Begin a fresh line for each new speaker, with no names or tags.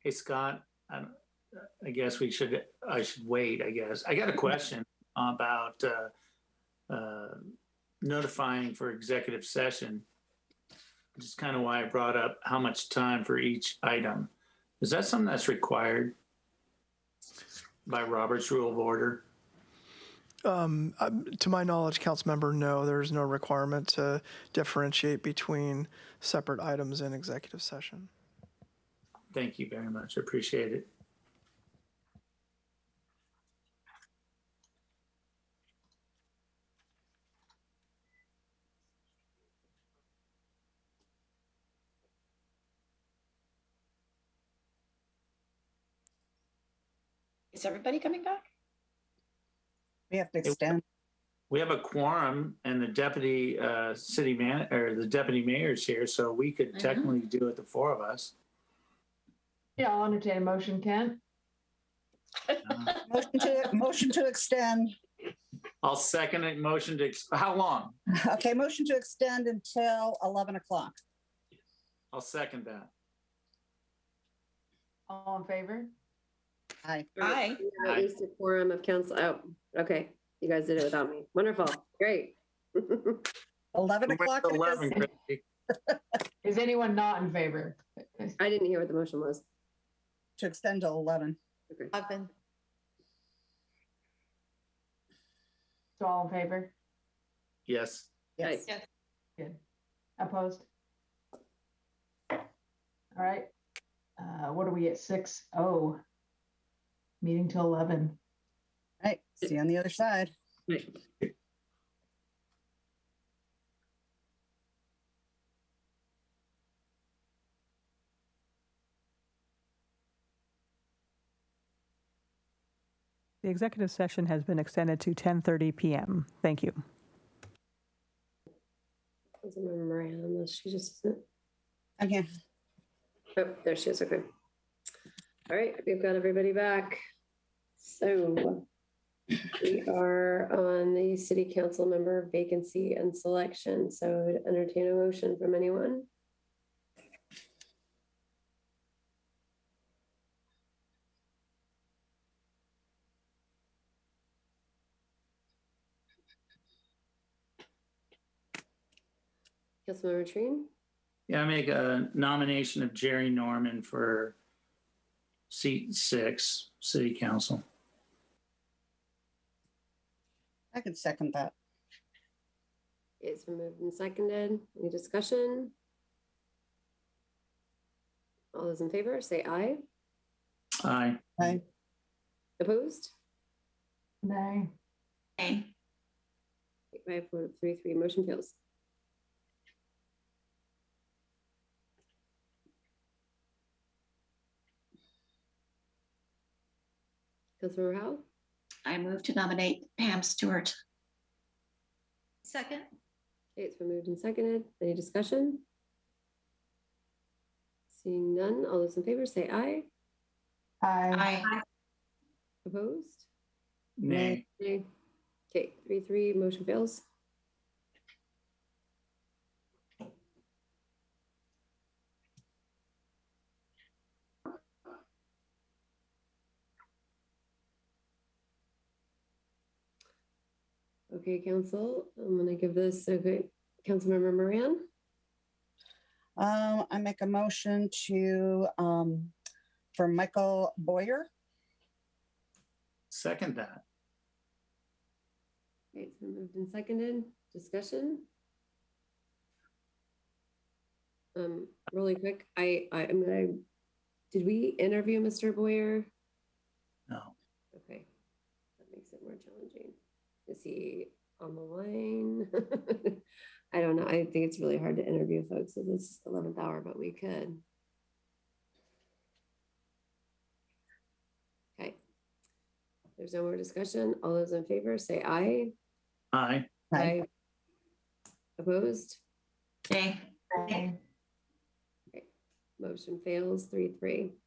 Hey, Scott, I I guess we should, I should wait, I guess. I got a question about uh, uh, notifying for executive session. Which is kind of why I brought up how much time for each item. Is that something that's required by Robert's Rule of Order?
Um, um, to my knowledge, council member, no, there is no requirement to differentiate between separate items in executive session.
Thank you very much. I Appreciate it.
Is everybody coming back?
We have to extend.
We have a quorum and the deputy uh, city man, or the deputy mayor's here, so we could
Mhm.
technically do it, the four of us.
Yeah, I'll entertain a motion, Kent.
Motion to, motion to extend.
I'll second it, motion to, ex- how long?
Okay, motion to extend until 11 o'clock.
I'll second that.
All in favor?
Aye.
Aye.
At
Aye.
least a quorum of council, oh, okay, you guys did it without me, wonderful, great.
11
We went
o'clock.
to
it is.
11, Christie.
Is anyone not in favor?
I didn't hear what the motion was.
To extend till 11.
Eleven.
So all in favor?
Yes.
Yes.
Aye.
Opposed? All right. Uh, what are we at? Six oh. Meeting till eleven.
Right. See you on the other side.
The executive session has been extended to 10:30 PM. Thank you.
Doesn't remember Miranda unless she just, isn't-
Okay.
oh, there she is, okay. All right, we've got everybody back. So we are on the city council member vacancy and selection, so I'd entertain a motion from anyone. Councilmember Trine,
Yeah, I make a nomination of Jerry Norman for seat six, city council.
I can second that.
it's been moved and seconded. Any discussion? All those in favor, say aye.
Aye.
Aye.
Opposed?
Nay.
Aye.
Eight By a vote of three, three, motion fails. Councilmember Howell,
I move to nominate Pam Stewart. Second.
Okay, it's been moved and seconded. Any discussion? Seeing none, all those in favor say aye.
Aye.
Aye.
Opposed?
Nay.
Nay. Okay, three, three, motion fails. Okay, council, I'm gonna give this, okay, Councilmember Moran,
Um, I make a motion to, um, for Michael Boyer.
Second that.
Okay, it's been moved and seconded, discussion? Um, really quick, I, I am gonna, did we interview Mr. Boyer?
No.
Okay, that makes it more challenging. Is he on the line? I don't know. I think it's really hard to interview folks at this eleventh hour, but we could. Okay. There's no more discussion. All those in favor, say aye.
Aye.
Aye.
Opposed?
Aye.
Motion fails, three, three.